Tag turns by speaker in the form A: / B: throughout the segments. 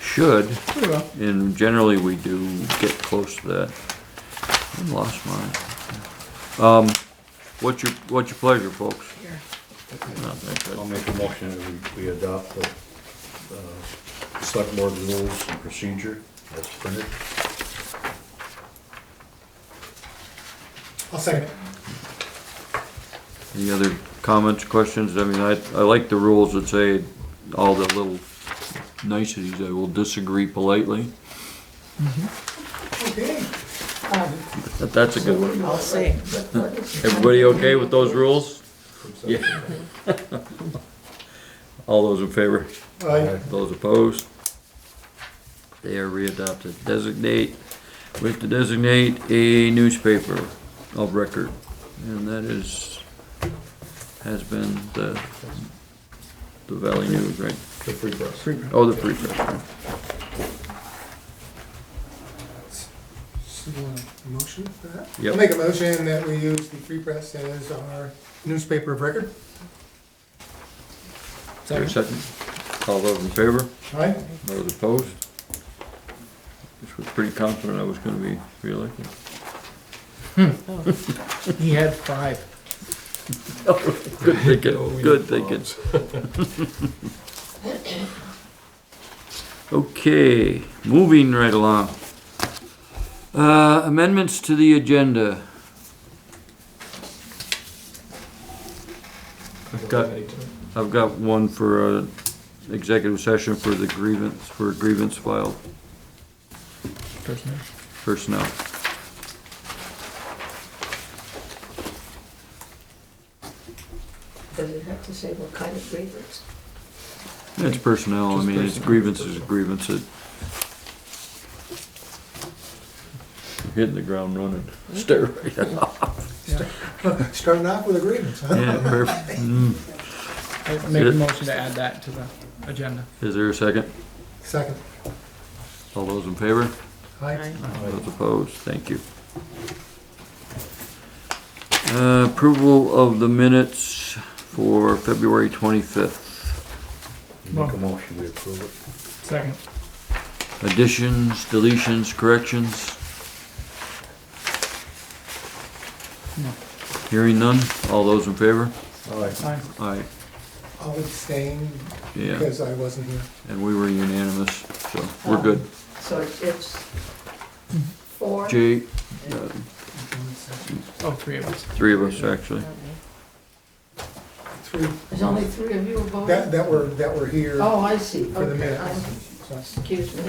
A: should,
B: Very well.
A: and generally we do get close to that. I lost mine. Um, what's your, what's your pleasure, folks?
C: I'll make a motion that we, we adopt the, uh, select board rules and procedure as printed.
B: I'll second it.
A: Any other comments, questions? I mean, I, I like the rules that say all the little niceties. I will disagree politely.
B: Okay.
A: That- That's a good one.
D: I'll see.
A: Everybody okay with those rules? Yeah. All those in favor?
B: Aye.
A: Those opposed? They are readopted. Designate, we have to designate a newspaper of record, and that is, has been the, the Valley News, right?
C: The free press.
A: Oh, the Free Press, right?
B: So you want a motion for that?
A: Yep.
B: I'll make a motion that we use the Free Press as our newspaper of record.
A: There a second? All those in favor?
B: Aye.
A: Those opposed? Just was pretty confident I was gonna be reelected.
D: He had five.
A: Good thinking, good thinking. Okay, moving right along. Uh, amendments to the agenda. I've got, I've got one for, uh, executive session for the grievance, for grievance filed personnel.
D: Does it have to say what kind of grievance?
A: It's personnel, I mean, it's grievances, grievances. Hitting the ground running. Stare right at
B: Starting off with agreements, huh?
A: Yeah, perfect. Mm.
E: I'll Make a motion to add that to the agenda.
A: Is there a second?
B: Second.
A: All those in favor?
B: Aye.
A: Those opposed? Thank you. Uh, Approval of the minutes for February 25th.
C: Make a motion to approve
E: Second.
A: Additions, deletions, corrections?
E: No.
A: Hearing none? All those in favor?
C: it. Aye.
E: Aye.
A: Aye,
B: I'll abstain
A: yeah.
B: because I wasn't here.
A: And we were unanimous, so we're good.
D: So it's four?
A: Jay, uh,
E: Oh, three of us.
A: three of us actually.
B: Three,
D: There's only three of you
B: that,
D: voting?
B: that were, that were here
D: Oh, I see,
B: for the
D: okay,
B: minutes.
D: I'm-
B: So,
D: excuse me.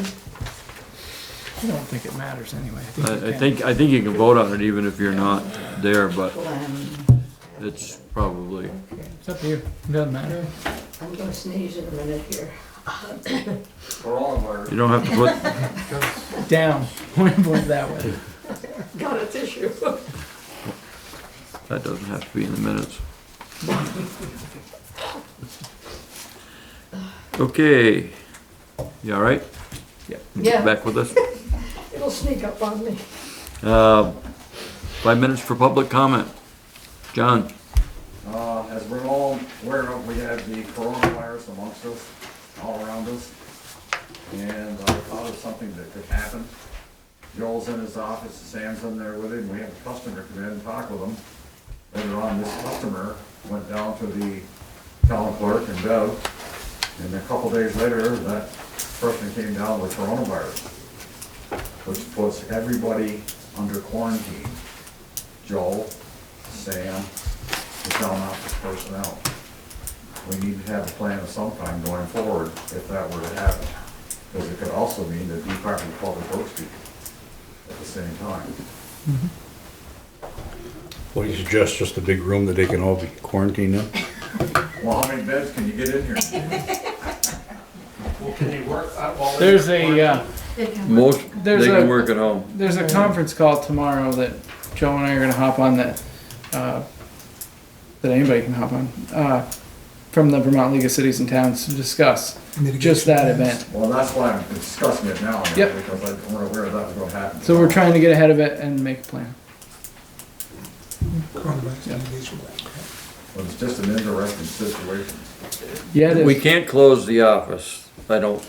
E: I don't think it matters anyway.
A: I, I
E: we can.
A: think, I think you can vote on it even if you're not there, but
D: Glenn.
A: it's probably,
D: Okay.
E: It's up to you. It doesn't matter.
D: I'm gonna sneeze in a minute here.
A: you don't have to put,
E: Down. Point it that way.
D: Got a tissue.
A: that doesn't have to be in the minutes. Okay, you all right?
D: Yeah,
A: Back with us?
D: it'll sneak up on me.
A: Uh, Five minutes for public comment. John?
F: Uh, as we're all aware of, we have the coronavirus amongst us, all around us. And I thought of something that could happen. Joel's in his office, Sam's in there with him, we had a customer come in and talk with him. Later on, this customer went down to the town clerk and Bev. And a couple days later, that person came down with coronavirus, which puts everybody under quarantine. Joel, Sam, the town office personnel. We need to have a plan of some kind going forward if that were to happen. Because it could also mean the Department of Public Works people at the same time.
C: What do you suggest, just a big room that they can all be quarantined in?
F: Well, how many beds can you get in here?
G: Well, can they work out while they're
E: There's a, uh,
A: Most,
E: There's
A: they can
E: a-
A: work at home.
E: there's a conference call tomorrow that Joe and I are gonna hop on that, uh, that anybody can hop on, uh, from the Vermont League of Cities and Towns to discuss just
B: mitigation
E: that
B: plans.
E: event.
F: Well, that's why I'm discussing it now.
E: Yep.
F: Because I- we're aware that was gonna happen.
E: So we're trying to get ahead of it and make a plan.
B: Coronavirus
E: Yeah.
B: mitigation plan.
F: Well, It's just an interesting situation.
E: Yeah, it is.
A: We can't close the office. I don't,